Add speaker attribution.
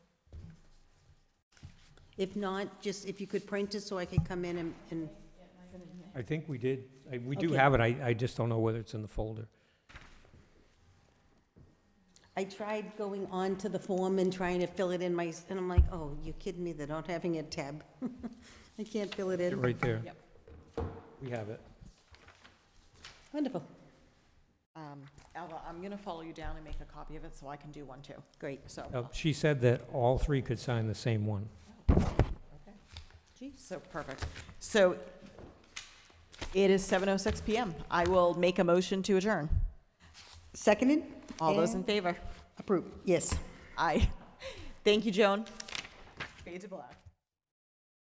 Speaker 1: If not, just if you could print it so I could come in and, and,
Speaker 2: I think we did, I- we do
Speaker 1: Okay.
Speaker 2: have it, I, I just don't know whether it's in the folder.
Speaker 1: I tried going on to the form and trying to fill it in my, and I'm like, oh, you're kidding me, they're not having a tab. I can't fill it
Speaker 2: It's
Speaker 1: in.
Speaker 2: Right there.
Speaker 3: Yep.
Speaker 2: We have it.
Speaker 1: Wonderful,
Speaker 3: Um, Alva, I'm going to follow you down and make a copy of it so I can do one too,
Speaker 1: great.
Speaker 3: so.
Speaker 2: Uh, She said that all three could sign the same one.
Speaker 3: Okay. So, perfect. So it is 7:06 PM. I will make a motion to adjourn.
Speaker 1: Seconded?
Speaker 3: All those in
Speaker 1: And
Speaker 3: favor?
Speaker 1: Approved, yes.
Speaker 3: Aye. Thank you, Joan. Fade to black.